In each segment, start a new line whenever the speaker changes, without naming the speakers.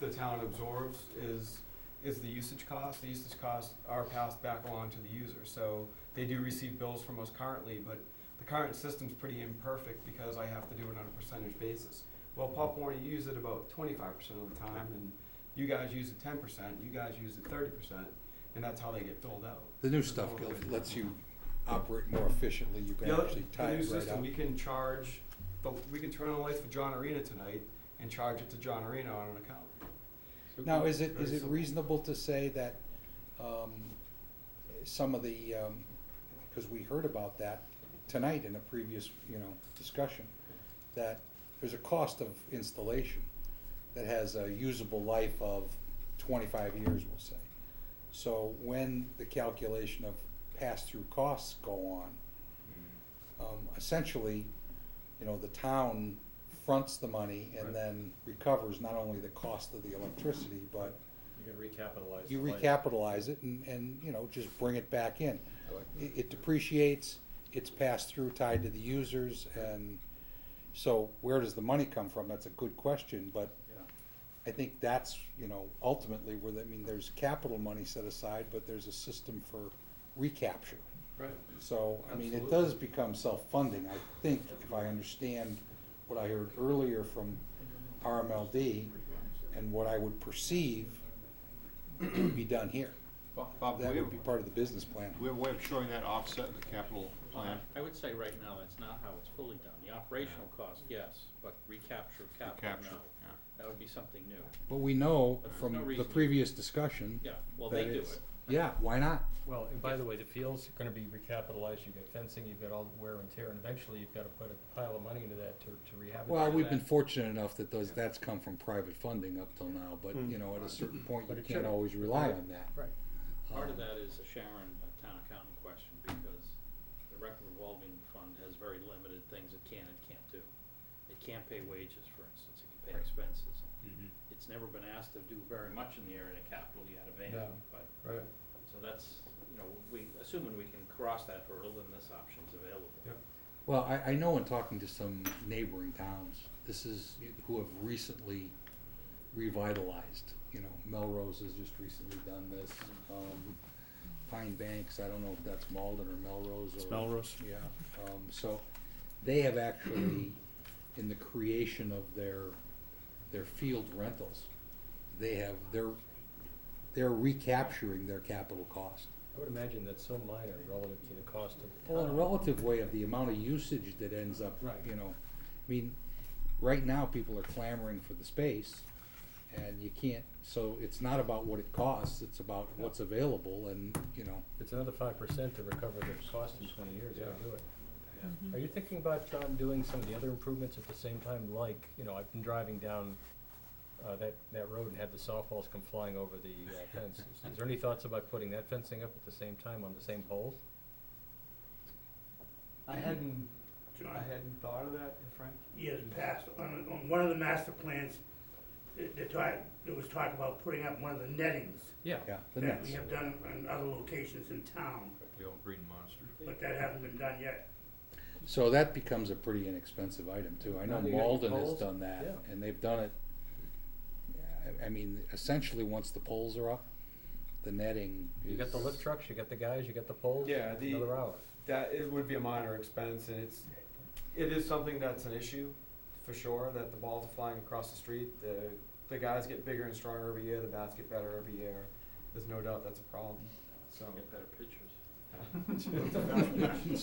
the town absorbs is, is the usage cost. The usage costs are passed back along to the user. So they do receive bills from us currently, but the current system's pretty imperfect because I have to do it on a percentage basis. Well, Pop Warner, you use it about twenty-five percent of the time, and you guys use it ten percent, you guys use it thirty percent, and that's how they get filled out.
The new stuff go- lets you operate more efficiently, you can
The other-
actually
the
tie
new
it right
system,
up.
We can charge, the- we can turn on the lights for John Arena tonight and charge it to John Arena on an account.
Now, is it, is
Very
it
simple.
reasonable to say that, um, some of the, um, cause we heard about that tonight in a previous, you know, discussion, that there's a cost of installation that has a usable life of twenty-five years, we'll say. So when the calculation of pass-through costs go on, um, essentially, you know, the town fronts the money
Right.
and then recovers not only the cost of the electricity, but
You can recapitalize.
you
the light.
recapitalize it and, and, you know, just bring it back in. It it depreciates, it's passed through tied to the users, and so where does the money come from? That's a good question, but I think that's, you know, ultimately where, the- I mean, there's capital money set aside, but there's a system for recapture.
Right.
So, I mean, it
Absolutely.
does become self-funding, I think, if I understand what I heard earlier from RMLD and what I would perceive would be done here.
Bob, Bob,
That
we're,
would be part of the business plan.
we're way of showing that offset in the capital plan.
I would say right now, that's not how it's fully done. The operational cost, yes, but recapture of capital,
Capture,
no. That would be something new.
But we know
There's no
from the
reason-
previous discussion.
Yeah, well,
that
they do
it's-
it.
Yeah, why not?
Well, and by the way, the field's gonna be recapitalized, you've got fencing, you've got all the wear and tear, and eventually you've gotta put a pile of money into that to, to rehab it.
Well,
to
we've
that.
been fortunate enough that those, that's come from private funding up till now, but, you know, at a certain point,
But
you
it
can't
should.
always rely on that.
Right.
Part of
Um,
that is a Sharon, a town accounting question, because the rec revolving fund has very limited things it can and can't do. It can't pay wages, for instance, it can pay expenses. It's never been asked to do very much in the area of capital yet of any,
No.
but,
Right.
so that's, you know, we, assuming we can cross that hurdle, then this option's available.
Yep.
Well, I, I know in talking to some neighboring towns, this is, who have recently revitalized, you know, Melrose has just recently done this, um, Pine Banks, I don't know if that's Malden or Melrose or.
Melrose.
Yeah, um, so they have actually, in the creation of their, their field rentals, they have, they're, they're recapturing their capital cost.
I would imagine that's so minor relative to the cost of. the
Well, in a
town.
relative way of the amount of usage that ends up,
Right.
you know, I mean, right now, people are clamoring for the space, and you can't, so it's not about what it costs, it's about what's available, and, you know,
It's another five percent to recover the cost in twenty years,
Yeah.
to do it. Are you thinking about, John, doing some of the other improvements at the same time, like, you know, I've been driving down, uh, that, that road and had the softballs come flying over the uh, fence. Is there any thoughts about putting that fencing up at the same time on the same poles?
I hadn't, I hadn't thought of that, Frank.
years past, on, on one of the master plans, the, the talk, there was talk about putting up one of the nettings
Yeah.
yeah, the
that we
nets.
have done in other locations in town,
The old green monster.
but that hasn't been done yet.
So that becomes a pretty inexpensive item, too. I know
Now you got your
Malden has
poles.
done that,
Yeah.
and they've done it, I, I mean, essentially, once the poles are up, the netting is.
You got the lift trucks, you got the guys, you got the poles.
Yeah,
it's
the-
Another hour.
That, it would be a minor expense, and it's, it is something that's an issue, for sure, that the balls are flying across the street. The, the guys get bigger and stronger every year, the bats get better every year. There's no doubt that's a problem, so.
Get better pictures.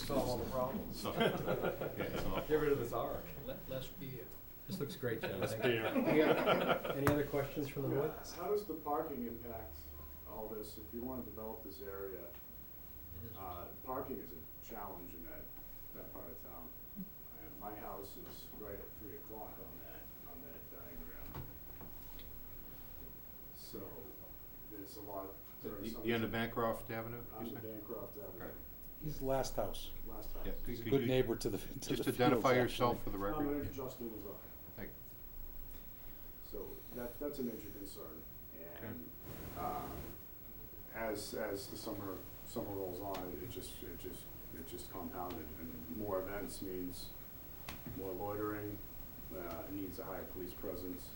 Solve all the problems.
So, yeah, so,
Get rid of this arc.
Let, less beer.
This looks great, John.
That's
Thank you.
beer.
Any other questions from the
Yeah,
board?
How does the parking impact all this? If you wanna develop this area, uh, parking is a challenge in that, that part of town. And my house is right at three o'clock on that, on that diagram. So, there's a lot, there are
you-
some.
you on the Bancroft Avenue?
I'm
you
in
say?
Bancroft
Okay.
Avenue,
He's the last house.
last house.
Yeah,
He's a
could- could
good
you
neighbor to the, to the
Just
fields,
identify
actually.
yourself for the
No, my
record.
name's Justin Lazar.
Thank-
So that, that's a major concern.
Okay.
And, uh, as, as the summer, summer rolls on, it just, it just, it just compounded. And more events means more loitering, uh, it needs a higher police presence.